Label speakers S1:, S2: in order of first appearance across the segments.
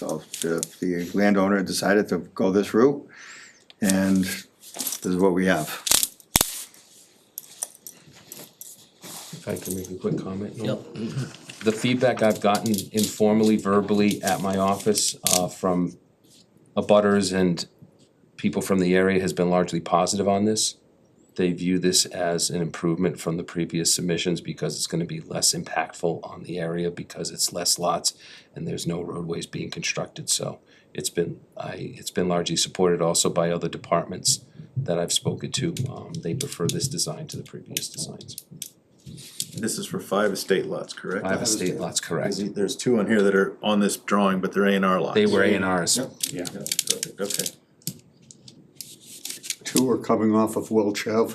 S1: The, the landowner decided to go this route, and this is what we have.
S2: If I can make a quick comment, Noel? The feedback I've gotten informally, verbally at my office, uh, from abutters and people from the area has been largely positive on this. They view this as an improvement from the previous submissions because it's gonna be less impactful on the area because it's less lots and there's no roadways being constructed, so it's been, I, it's been largely supported also by other departments that I've spoken to. Um, they prefer this design to the previous designs.
S3: This is for five estate lots, correct?
S2: Five estate lots, correct.
S3: There's- There's two on here that are on this drawing, but they're A and R lots.
S2: They were A and Rs.
S3: Yeah, perfect, okay,
S4: Two are coming off of Welch Ave.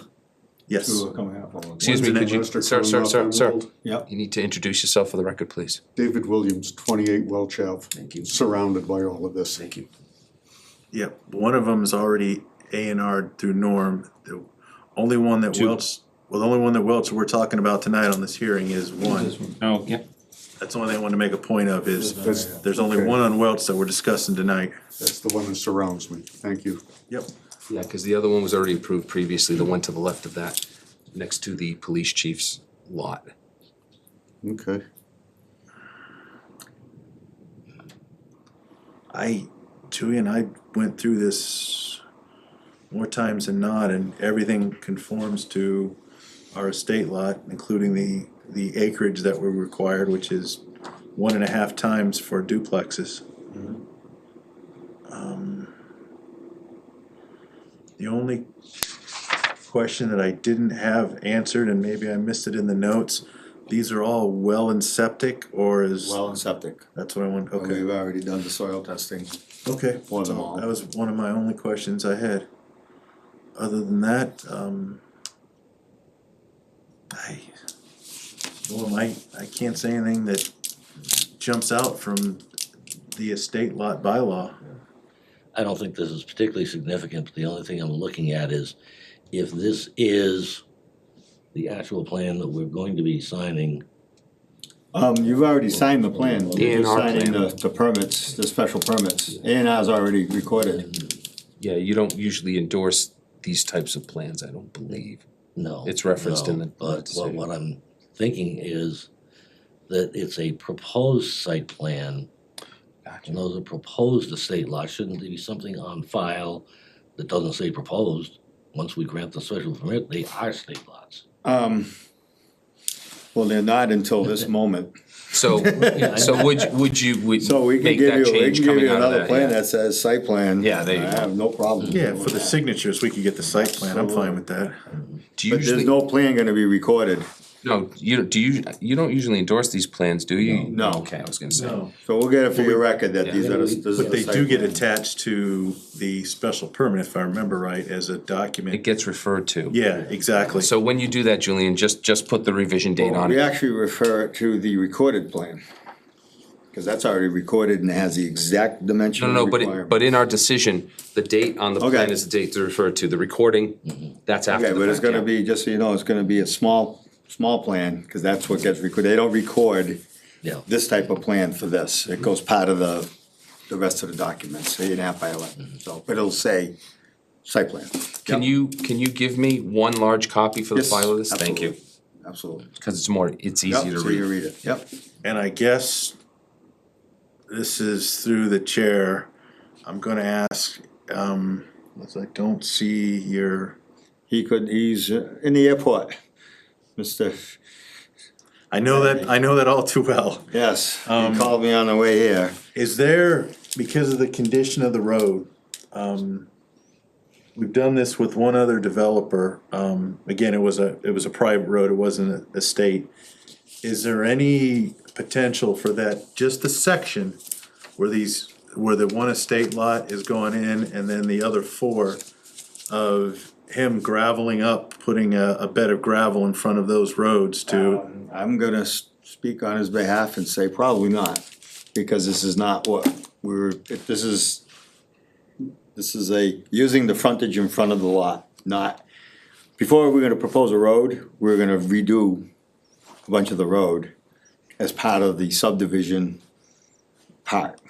S3: yes.
S4: Two are coming off of.
S2: Excuse me, could you, sir, sir, sir, sir,
S4: Yep,
S2: you need to introduce yourself for the record, please.
S4: David Williams, twenty-eight Welch Ave. Thank you. Surrounded by all of this.
S2: Thank you.
S3: Yeah, one of them is already A and R through Norm. The only one that Welch, well, the only one that Welch we're talking about tonight on this hearing is one.
S5: Oh, yeah.
S3: That's the one thing I want to make a point of is,
S4: That's,
S3: there's only one on Welch that we're discussing tonight.
S4: that's the one that surrounds me. Thank you.
S3: Yep.
S2: Yeah, because the other one was already approved previously, the one to the left of that, next to the police chief's lot.
S4: Okay.
S3: I, Tui and I went through this more times than not, and everything conforms to our estate lot, including the, the acreage that we're required, which is one and a half times for duplexes. Um, The only question that I didn't have answered, and maybe I missed it in the notes, these are all well and septic, or is,
S1: Well and septic.
S3: that's what I want, okay.
S1: We've already done the soil testing.
S3: Okay,
S4: For them
S3: so
S4: all.
S3: that was one of my only questions I had. Other than that, um, I, well, I, I can't say anything that jumps out from the estate lot bylaw.
S6: I don't think this is particularly significant, but the only thing I'm looking at is if this is the actual plan that we're going to be signing,
S1: Um, you've already signed the plan,
S6: The
S1: you're just
S2: A&R
S1: signing
S2: plan.
S1: the, the permits, the special permits, A and R's already recorded.
S2: Yeah, you don't usually endorse these types of plans, I don't believe.
S6: no.
S2: It's referenced in
S6: no,
S2: the- the
S6: But what,
S2: decision.
S6: what I'm thinking is that it's a proposed site plan, and
S2: Gotcha.
S6: those are proposed estate lots, shouldn't there be something on file that doesn't say proposed? Once we grant the special permit, they are state lots.
S1: Um, well, they're not until this moment,
S2: So, so would, you- would you, would
S1: so we can
S2: make
S1: give
S2: that
S1: you, we can
S2: change
S1: give
S2: coming
S1: you
S2: out
S1: another
S2: of
S1: plan
S2: that?
S1: that says site plan.
S2: Yeah, there you
S1: I
S2: go.
S1: have no problem.
S3: Yeah, for the signatures, we could get the site plan, I'm fine with that.
S2: yeah. Do you
S1: But there's
S2: usually,
S1: no plan gonna be recorded,
S2: no, you, don't- do you, you don't usually endorse these plans, do you?
S1: No. No.
S2: Okay, I was gonna say.
S1: so we'll get it for your record that these are, the- this is
S3: But
S1: the
S3: they
S1: site
S3: do get
S1: plan.
S3: attached to the special permit, if I remember right, as a
S2: It
S3: document.
S2: gets referred to.
S3: Yeah, exactly.
S2: So when you do that, Julian, just, just put the revision date on it.
S1: Oh, We actually refer it to the recorded plan, cause that's already recorded and has the exact
S2: No,
S1: dimensional
S2: no, no, but, it-
S1: requirement.
S2: but in our decision, the date on the plan
S1: Okay.
S2: is the date to refer to, the recording, that's after
S1: Okay,
S2: the
S1: but it's
S2: fact,
S1: gonna
S2: yeah.
S1: be, just so you know, it's gonna be a small, small plan, cause that's what gets recorded, they don't record
S6: Yeah.
S1: this type of plan for this, it goes part of the, the rest of the documents, eight and a half by
S2: Mm-hmm.
S1: eleven, so, but it'll say site plan.
S2: Can you, can you give me one large copy for the
S1: Yes,
S2: file of this? Thank you,
S1: absolutely, Absolutely.
S2: because it's more, it's easy
S1: Yep,
S2: to
S1: so you read
S2: read.
S1: it, yep.
S3: And I guess this is through the chair. I'm gonna ask, um, unless I don't see your,
S1: He could, he's uh, in the airport, Mister,
S3: I know that, I know that all too well.
S1: yes, he called me on the way here.
S3: Is there, because of the condition of the road, um, we've done this with one other developer. Um, again, it was a, it was a private road, it wasn't a state. Is there any potential for that, just the section where these, where the one estate lot is going in and then the other four of him graveling up, putting a, a bed of gravel in front of those roads to,
S1: Um, I'm gonna s- speak on his behalf and say probably not, because this is not what we're, if this is, this is a, using the frontage in front of the lot, not, before we're gonna propose a road, we're gonna redo a bunch of the road as part of the subdivision part.